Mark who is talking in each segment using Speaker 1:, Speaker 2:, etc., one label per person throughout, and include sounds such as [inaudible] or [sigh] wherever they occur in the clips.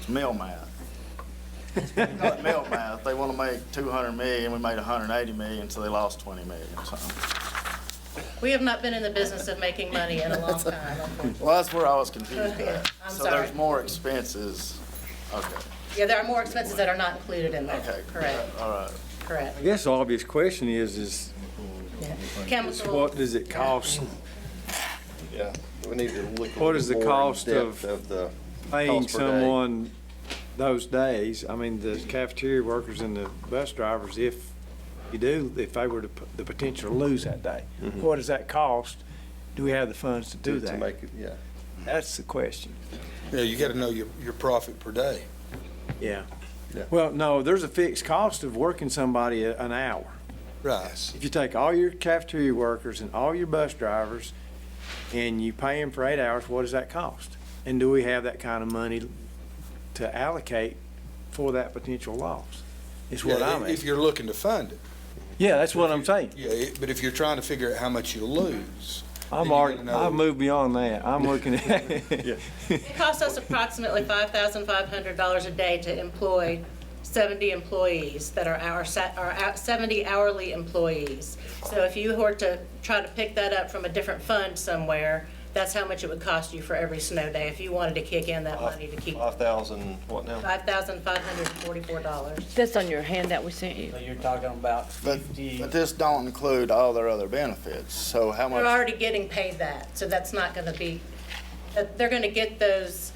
Speaker 1: It's mill math. It's Mill math, they want to make 200 million, we made 180 million, so they lost 20 million, so.
Speaker 2: We have not been in the business of making money in a long time, unfortunately.
Speaker 1: Well, that's where I was confused
Speaker 2: Yeah,
Speaker 3: [laughs]
Speaker 1: at.
Speaker 2: I'm
Speaker 1: So there's
Speaker 2: sorry.
Speaker 1: more expenses, okay,
Speaker 2: Yeah, there are more expenses that are not included in there.
Speaker 1: okay.
Speaker 2: Correct,
Speaker 1: All right.
Speaker 2: correct.
Speaker 4: I guess the obvious question is, is
Speaker 2: Yeah.
Speaker 4: is
Speaker 2: Chemical,
Speaker 4: what does it cost?
Speaker 5: Yeah, we need to look. a
Speaker 4: What
Speaker 5: little
Speaker 4: is the
Speaker 5: more in
Speaker 4: cost
Speaker 5: depth
Speaker 4: of
Speaker 5: the
Speaker 4: Paying
Speaker 5: cost per day.
Speaker 4: someone those days, I mean, the cafeteria workers and the bus drivers, if you do, if they were to, p- the potential to lose that day, what does that cost? Do we have the funds to do
Speaker 5: Mm-hmm. to- To
Speaker 4: that?
Speaker 5: make it, yeah.
Speaker 4: That's the question.
Speaker 6: Yeah, you gotta know your, your profit per day.
Speaker 4: Yeah.
Speaker 5: Yeah.
Speaker 4: Well, no, there's a fixed cost of working somebody a- an hour.
Speaker 6: Right.
Speaker 4: If you take all your cafeteria workers and all your bus drivers and you pay them for eight hours, what does that cost? And do we have that kind of money to allocate for that potential loss? Is what
Speaker 6: Yeah,
Speaker 4: I'm
Speaker 6: If
Speaker 4: asking.
Speaker 6: you're looking to fund it.
Speaker 4: Yeah, that's what I'm saying.
Speaker 6: Yeah, it- but if you're trying to figure out how much you'll lose.
Speaker 4: I'm
Speaker 6: you
Speaker 4: already,
Speaker 6: gotta know-
Speaker 4: I've moved beyond that. I'm looking at,
Speaker 6: [laughs]
Speaker 2: it costs us approximately $5,500 a day to employ 70 employees that are our, sa- are our 70 hourly employees. So if you were to try to pick that up from a different fund somewhere, that's how much it would cost you for every snow day if you wanted to kick in that money to keep
Speaker 5: Five thousand, what now?
Speaker 2: $5,544.
Speaker 3: That's on your handout we sent you.
Speaker 7: So you're talking about
Speaker 1: But,
Speaker 7: fifty,
Speaker 1: but this don't include all their other benefits, so how
Speaker 2: They're
Speaker 1: much?
Speaker 2: already getting paid that, so that's not going to be, that- they're going to get those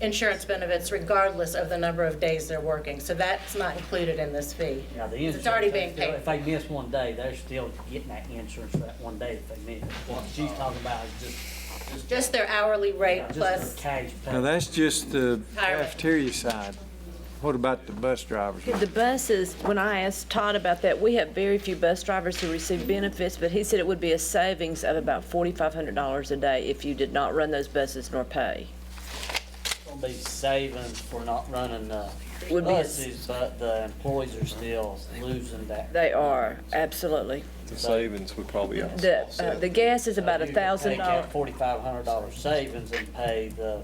Speaker 2: insurance benefits regardless of the number of days they're working. So that's not included in this fee.
Speaker 7: now the insurance.
Speaker 2: It's already being
Speaker 7: they're still-
Speaker 2: paid.
Speaker 7: If they miss one day, they're still getting that insurance for that one day that they miss. What she's talking about is just, just,
Speaker 2: Just their hourly rate
Speaker 7: just
Speaker 2: plus,
Speaker 7: their cash pay.
Speaker 4: now that's just the
Speaker 2: Retirement.
Speaker 4: cafeteria side. What about the bus drivers?
Speaker 3: The buses, when I asked Todd about that, we have very few bus drivers who receive benefits, but he said it would be a savings of about forty-five hundred dollars a day if you did not run those buses nor pay.
Speaker 7: Gonna be savings for not running the
Speaker 3: Would be a-
Speaker 7: buses, but the employees are still losing that.
Speaker 3: They are, absolutely.
Speaker 5: The savings would probably
Speaker 3: The, uh, the gas is about a thousand dollars.
Speaker 7: Forty-five hundred dollar savings and pay the,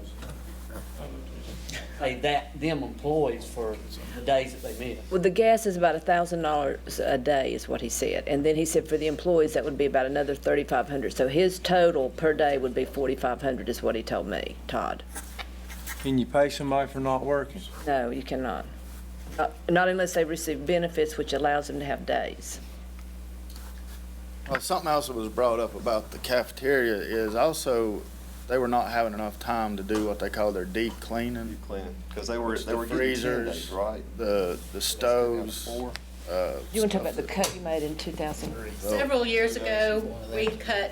Speaker 7: pay that, them employees for the days that they miss.
Speaker 3: Well, the gas is about a thousand dollars a day is what he said. And then he said for the employees, that would be about another thirty-five hundred. So his total per day would be forty-five hundred is what he told me, Todd.
Speaker 4: Can you pay somebody for not working?
Speaker 3: No, you cannot. Uh, Not unless they receive benefits, which allows them to have days.
Speaker 1: Well, something else that was brought up about the cafeteria is also, they were not having enough time to do what they call their deep cleaning.
Speaker 5: because they were, they were getting ten
Speaker 1: freezers,
Speaker 5: days, right?
Speaker 1: The, the stoves,
Speaker 5: Four.
Speaker 1: uh,
Speaker 3: You want to talk about the cut you made in 2000?
Speaker 2: several years ago, we cut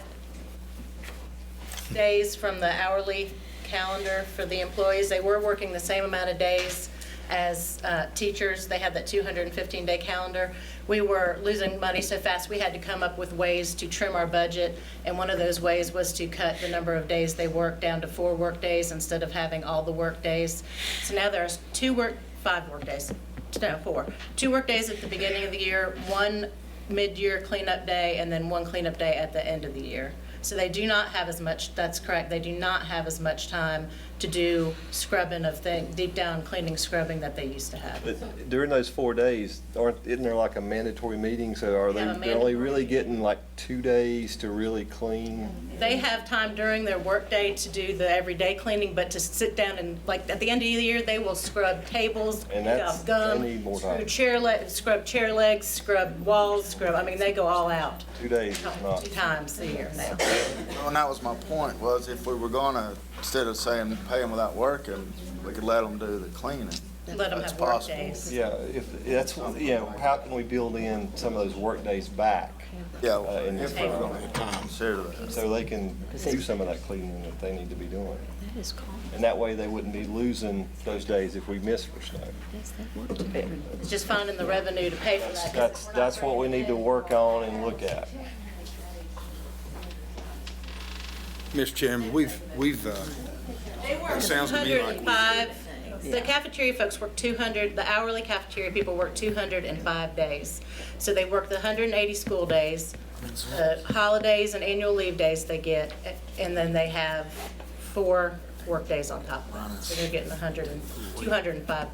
Speaker 2: days from the hourly calendar for the employees. They were working the same amount of days as uh, teachers. They had that 215-day calendar. We were losing money so fast, we had to come up with ways to trim our budget, and one of those ways was to cut the number of days they worked down to four workdays instead of having all the workdays. So now there's two work, five workdays, no, four. Two workdays at the beginning of the year, one mid-year cleanup day, and then one cleanup day at the end of the year. So they do not have as much, that's correct, they do not have as much time to do scrubbing of thing, deep down cleaning, scrubbing that they used to have.
Speaker 5: But during those four days, aren't, isn't there like a mandatory meeting, so are
Speaker 2: They
Speaker 5: they,
Speaker 2: have a
Speaker 5: they're only
Speaker 2: mandatory
Speaker 5: really
Speaker 2: meeting.
Speaker 5: getting like two days to really clean?
Speaker 2: They have time during their workday to do the everyday cleaning, but to sit down and, like, at the end of the year, they will scrub tables,
Speaker 5: And
Speaker 2: pick
Speaker 5: that's-
Speaker 2: up gum,
Speaker 5: they need more
Speaker 2: screw
Speaker 5: time.
Speaker 2: chair le, scrub chair legs, scrub walls, scrub, I mean, they go all out
Speaker 5: Two days is not,
Speaker 2: two times a year now.
Speaker 1: Well, and that was my point, was if we were gonna, instead of saying pay them without working, we could let them do the cleaning.
Speaker 2: Let them
Speaker 1: That's
Speaker 2: have
Speaker 1: possible.
Speaker 2: workdays.
Speaker 5: yeah, if, that's, yeah, how can we build in some of those work days back?
Speaker 1: Yeah,
Speaker 5: Uh, and-
Speaker 1: if we're gonna have time, consider that.
Speaker 5: So they can do some of that cleaning that they need to be doing.
Speaker 3: That is cold.
Speaker 5: And that way, they wouldn't be losing those days if we miss for snow.
Speaker 3: That's that work to do.
Speaker 2: It's just finding the revenue to pay for that. 'cause
Speaker 5: That's, that's what we need to work on and look at.
Speaker 6: Mr. Chairman, we've, we've, uh,
Speaker 2: They work
Speaker 6: sounds to me like-
Speaker 2: 205 The cafeteria folks work 200, the hourly cafeteria people work 205 days. So they work the 180 school days, the holidays and annual leave days they get, and then they have four workdays on top of that. So they're getting 100 and 205